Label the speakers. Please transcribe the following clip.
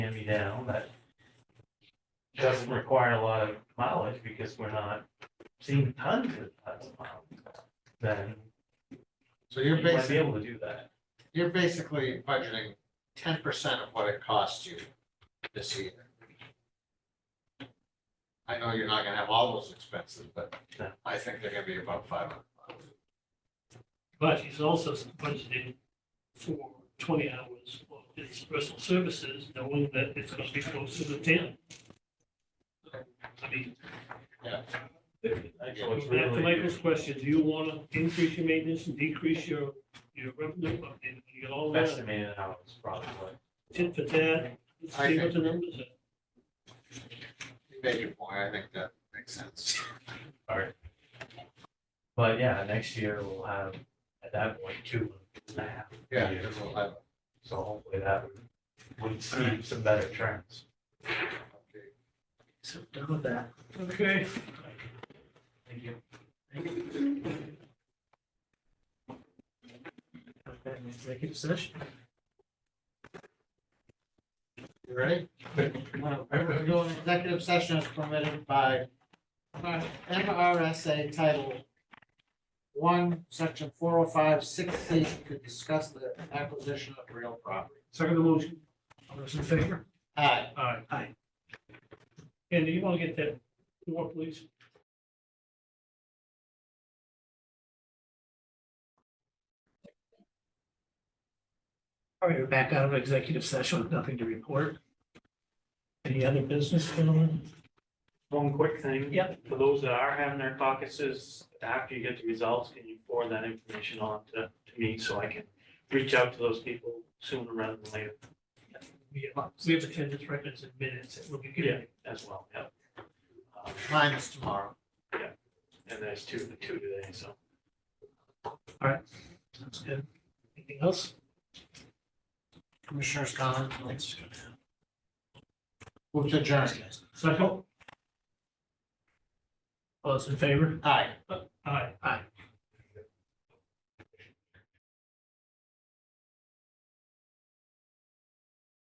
Speaker 1: down that doesn't require a lot of mileage because we're not seeing tons of tons of miles, then
Speaker 2: So
Speaker 1: you
Speaker 2: you're
Speaker 1: might be
Speaker 2: basically,
Speaker 1: able to do that.
Speaker 2: you're basically budgeting ten percent of what it costs you this year. I know you're not gonna have all those expenses, but
Speaker 1: No.
Speaker 2: I think they're gonna be about five hundred bucks.
Speaker 3: But he's also budgeting for twenty hours of his personal services, knowing that it's gonna be close to the ten. I mean.
Speaker 2: Yeah.
Speaker 1: So it's
Speaker 3: Back to
Speaker 1: really-
Speaker 3: Michael's question, do you wanna increase your maintenance and decrease your, your revenue, I mean, you get all that,
Speaker 1: Estimated hours probably.
Speaker 3: tit for tat,
Speaker 2: I
Speaker 3: see what the numbers are.
Speaker 2: You made your point, I think that makes sense.
Speaker 1: But yeah, next year we'll have, at that point, two and a half.
Speaker 2: Yeah,
Speaker 1: years.
Speaker 2: we'll have-
Speaker 1: So hopefully that would, would see some better trends.
Speaker 2: okay.
Speaker 4: So done with that.
Speaker 3: Okay.
Speaker 1: Thank you.
Speaker 4: Have that in Executive session.
Speaker 2: You ready? Remember, we're doing executive session as permitted by MRSA Title One, Section four oh five, six C, to discuss the acquisition of real property.
Speaker 3: Second motion.
Speaker 4: All those in favor?
Speaker 2: Aye.
Speaker 3: Aye.
Speaker 4: Aye.
Speaker 3: And do you wanna get that more, please?
Speaker 4: All right, we're back out of executive session with nothing to report. Any other business, gentlemen?
Speaker 1: One quick thing.
Speaker 4: Yep.
Speaker 1: For those that are having their caucuses, after you get the results, can you forward that information on to, to me so I can reach out to those people sooner rather than later
Speaker 3: We have, we have attendance records and minutes that will be given.
Speaker 1: as well, yep. Um,
Speaker 2: Mine is tomorrow.
Speaker 1: And there's two, the two today, so.
Speaker 4: Sounds good. Anything else?
Speaker 2: Commissioners' comments? Move to adjourn.
Speaker 3: Second,
Speaker 4: All those in favor?
Speaker 2: Aye.
Speaker 3: uh,